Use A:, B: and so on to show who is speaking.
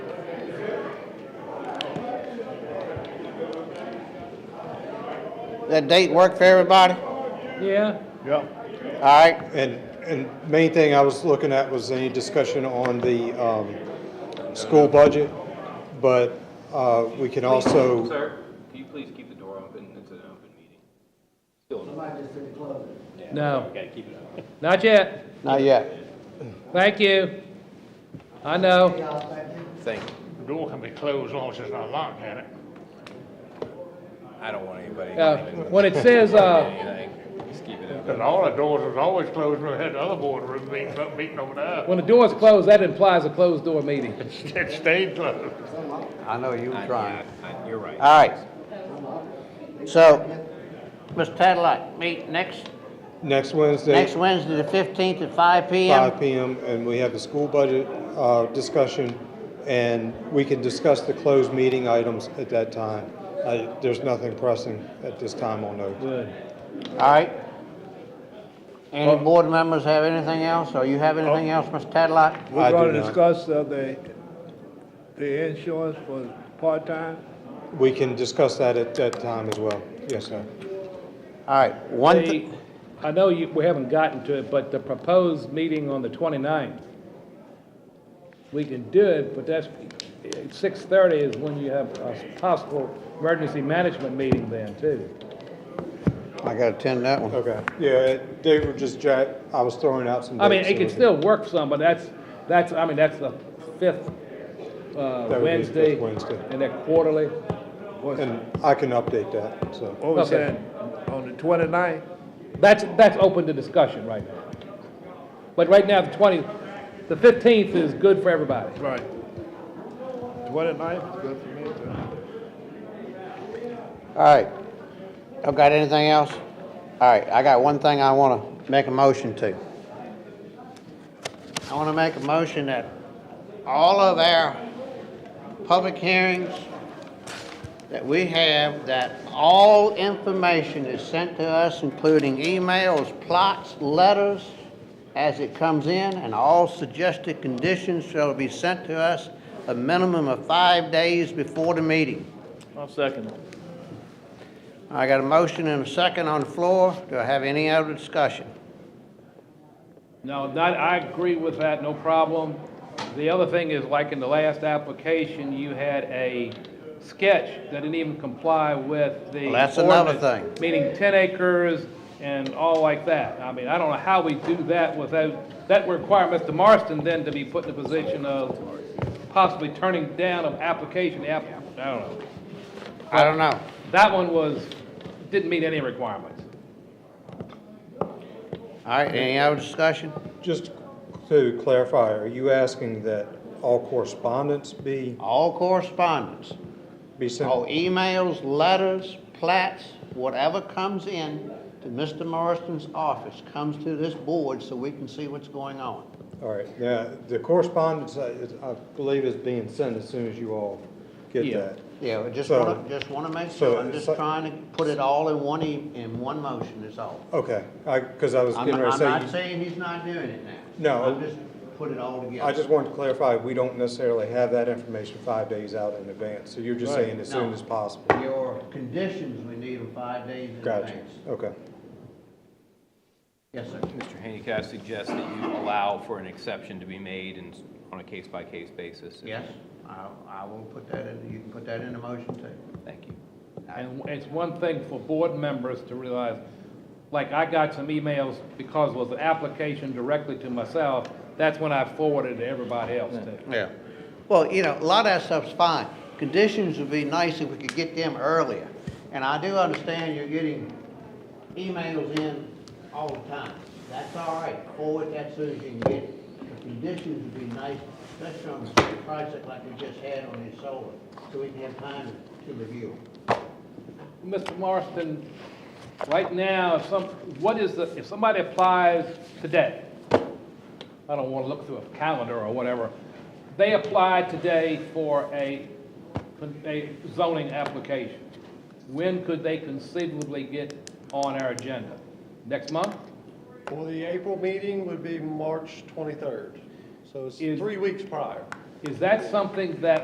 A: That date work for everybody?
B: Yeah,
C: Yep.
A: All right,
D: And, and main thing I was looking at was any discussion on the, um, school budget, but, uh, we can also.
E: Sir, can you please keep the door open? It's an open meeting. Still an open.
B: no,
E: Okay, keep it open.
B: not yet.
A: not yet.
B: Thank you. I know.
E: Thank you.
C: The door can be closed as long as it's not locked, can it?
E: I don't want anybody.
B: Uh, When it says, uh,
E: Anything. Just keep it open.
C: Because all the doors was always closed when we had the other boardroom meeting, something meeting over there.
B: when the door's closed, that implies a closed door meeting.
C: It stayed closed.
A: I know you were
E: I-
A: trying.
E: I- I- You're right.
A: All right. So, Mr. Tadlock, meet next,
D: Next Wednesday.
A: next Wednesday, the 15th at 5
D: 5
A: PM.
D: PM, and we have a school budget uh, discussion, and we can discuss the closed meeting items at that time. I- There's nothing pressing at this time on those.
A: All right. Oh. Any board members have anything else, or you have anything else, Mr. Tadlock?
D: I
F: We're
D: do
F: gonna
D: not.
F: discuss uh, the, the insurance for part-time.
D: We can discuss that at that time as well. Yes, sir.
A: All right, one,
B: The-
A: th-
B: I know you, we haven't gotten to it, but the proposed meeting on the 29th, we can do it, but that's, six-thirty is when you have a possible emergency management meeting then, too.
A: I gotta attend that one.
D: Okay. Yeah, they were just, jack. I was throwing out some
B: I mean,
D: dates,
B: it
D: so
B: can
D: we
B: still work for some, but that's, that's, I mean, that's the fifth, uh,
D: That would be the
B: Wednesday.
D: fifth Wednesday.
B: And that quarterly.
D: And I can update that, so.
F: What was
B: Okay.
F: that, on the 29th?
B: That's, that's open to discussion right now. But right now, the twentieth, the fifteenth is good for everybody.
F: Right. 29th is good for me, too.
A: All right. Y'all got anything else? All right, I got one thing I want to make a motion to. I want to make a motion that all of our public hearings that we have, that all information is sent to us, including emails, plots, letters, as it comes in, and all suggested conditions shall be sent to us a minimum of five days before the meeting. I got a motion and a second on the floor. Do I have any other discussion?
B: No, that, I agree with that, no problem. The other thing is, like in the last application, you had a sketch that didn't even comply with the.
A: Well, that's another
B: ordinance,
A: thing.
B: Meaning ten acres and all like that. I mean, I don't know how we do that without, that require Mr. Marston then to be put in a position of possibly turning down an application, app, I don't know.
A: I don't know.
B: That one was, didn't meet any requirements.
A: All right, any other discussion?
D: Just to clarify, are you asking that all correspondence be,
A: All correspondence,
D: be sent?
A: all emails, letters, plats, whatever comes in to Mr. Morrison's office comes to this board so we can see what's going on.
D: All right, yeah, the correspondence, I is- I believe is being sent as soon as you all get
B: Yeah.
D: that.
A: Yeah, we just
D: So-
A: want to, just want to make
D: so
A: sure. I'm
D: it's
A: just
D: like-
A: trying to put it all in one, e- in one motion is all.
D: Okay, I, because I was
A: I'm
D: getting ready to
A: I'm
D: say.
A: not
D: you-
A: saying he's not doing it now.
D: No.
A: I'm just put it all together.
D: I just wanted to clarify, we don't necessarily have that information five days out in advance, so you're just saying as soon
A: No.
D: as possible.
A: Your conditions, we need them five days in
D: Gotcha,
A: advance.
D: okay.
A: Yes, sir.
E: Mr. Haney, could I suggest that you allow for an exception to be made and s- on a case-by-case basis?
A: Yes, I, I will put that in, you can put that in the motion too.
E: Thank you.
B: And it's one thing for board members to realize, like, I got some emails because it was an application directly to myself, that's when I forwarded to everybody else too.
A: Yeah. Well, you know, a lot of that stuff's fine. Conditions would be nice if we could get them earlier. And I do understand you're getting emails in all the time. That's all right, forward that soon as you can get it. The conditions would be nice, especially on a project like we just had on the solar, so we can have time to review them.
B: Mr. Marston, right now, if some, what is the, if somebody applies today, I don't wanna look through a calendar or whatever, they applied today for a, a zoning application. When could they conceivably get on our agenda? Next month?
G: Well, the April meeting would be March 23rd, so it's
B: Is-
G: three weeks prior.
B: Is that something that